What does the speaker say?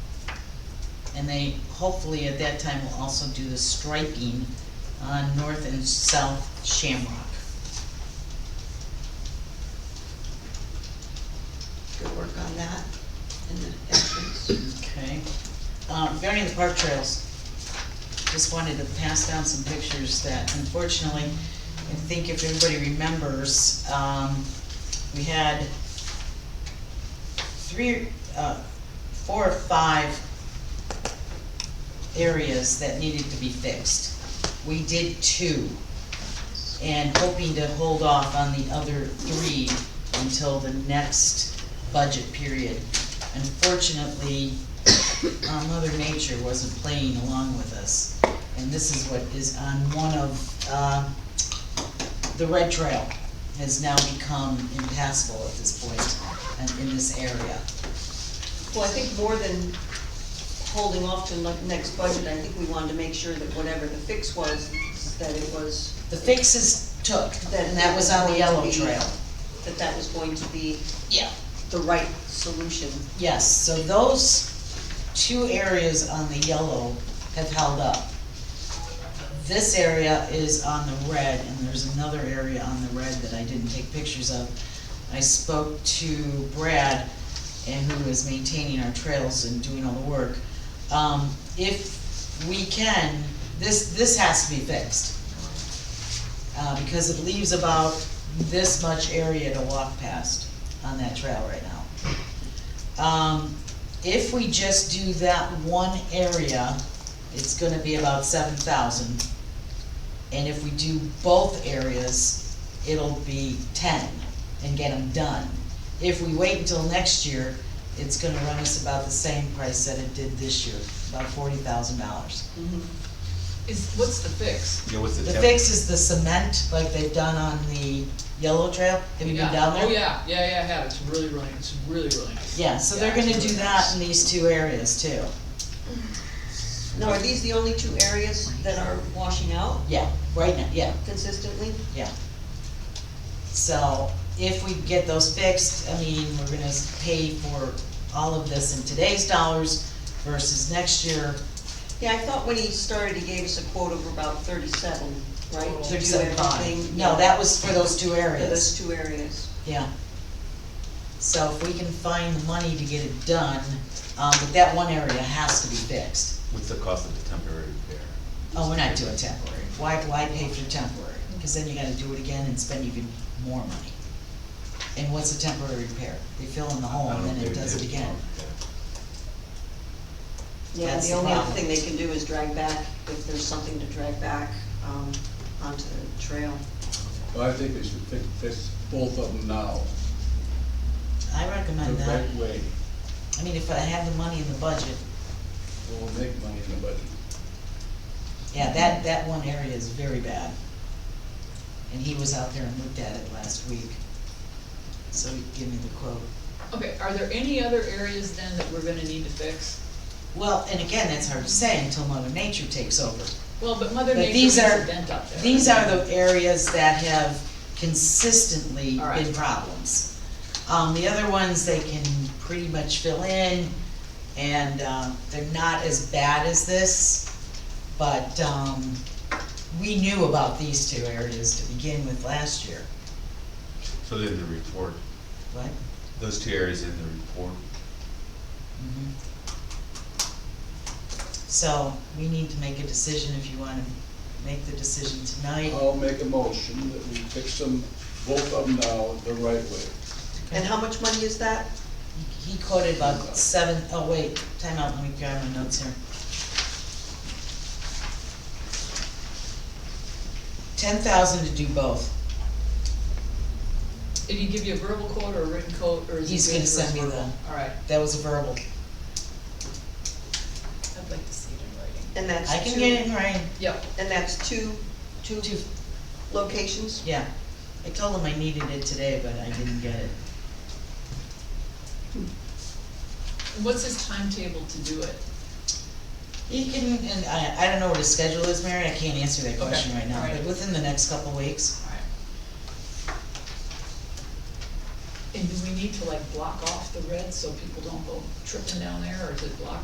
And they, hopefully at that time, will also do the striping on north and south Shamrock. Good work on that and the entrance. Okay. Uh, Regarding the park trails, just wanted to pass down some pictures that unfortunately, I think if everybody remembers, um, we had three, uh, four or five areas that needed to be fixed. We did two, and hoping to hold off on the other three until the next budget period. Unfortunately, uh, Mother Nature wasn't playing along with us, and this is what is on one of, uh, the red trail has now become impassable at this point, and in this area. Well, I think more than holding off to the next budget, I think we wanted to make sure that whatever the fix was, that it was, The fixes took, and that was on the yellow trail. that that was going to be Yeah. the right solution. Yes, so those two areas on the yellow have held up. This area is on the red, and there's another area on the red that I didn't take pictures of. I spoke to Brad, and who is maintaining our trails and doing all the work. Um, if we can, this, this has to be fixed. Uh, because it leaves about this much area to walk past on that trail right now. Um, if we just do that one area, it's gonna be about seven thousand. And if we do both areas, it'll be ten and get them done. If we wait until next year, it's gonna run us about the same price that it did this year, about forty thousand dollars. Mm-hmm. Is, what's the fix? Yeah, what's the The temp? fix is the cement, like they've done on the yellow trail, have you been Yeah. down there? Oh, yeah, yeah, yeah, I have, it's really running, it's really running. Yeah, so they're Yeah, gonna it's do really that nice. in these two areas too, Now, are these the only two areas that are washing out yeah, right now, yeah. consistently? Yeah. So if we get those fixed, I mean, we're gonna pay for all of this in today's dollars versus next year, Yeah, I thought when he started, he gave us a quote of about thirty-seven, right? to do thirty-seven everything, five. No, yeah, that was for those two For those areas, two areas. yeah. So if we can find the money to get it done, um, but that one area has to be fixed. What's the cost of the temporary repair? Oh, we're not doing temporary. Why, why pay for temporary? Cause then you gotta do it again and spend even more money. And what's a temporary repair? They fill in the hole I Oh, and then don't think it they does it did. again. Yeah, That's the the only other problem. thing they can do is drag back, if there's something to drag back, um, onto the trail. Well, I think they should fix, fix both of them now, I the recommend that. right way, I mean, if I have the money in the budget, we will make money in the budget. yeah, that, that one area is very bad. And he was out there and looked at it last week. So he gave me the quote. Okay, are there any other areas then that we're gonna need to fix? Well, and again, that's hard to say until Mother Nature takes over. Well, but Mother But Nature these makes are- a dent up there. These are the areas that have consistently All right. been problems. Um, the other ones, they can pretty much fill in, and, um, they're not as bad as this, but, um, we knew about these two areas to begin with last year, So then the report, right? those two areas in the report, Mhm. So, we need to make a decision if you wanna make the decision tonight. Oh. I'll make a motion that we fix them, both of them now, the right way. And how much money is that? He quoted about seven, oh wait, time out. let me grab my notes here. Ten thousand to do both, Did he give you a verbal quote or a written quote, or is he He's good gonna for his send me verbal? Alright, that was a verbal, I'd like to see it in writing. And that's I can two- get it in writing, Yep, And that's two, two Two. locations? yeah. I told him I needed it today, but I didn't get it. And what's his timetable to do it? He can, and I, I don't know what his schedule is, Mary, I can't answer that question Okay, right now, alright. but within the next couple weeks. Alright. And do we need to like block off the red so people don't go tripping down there, or is it blocked?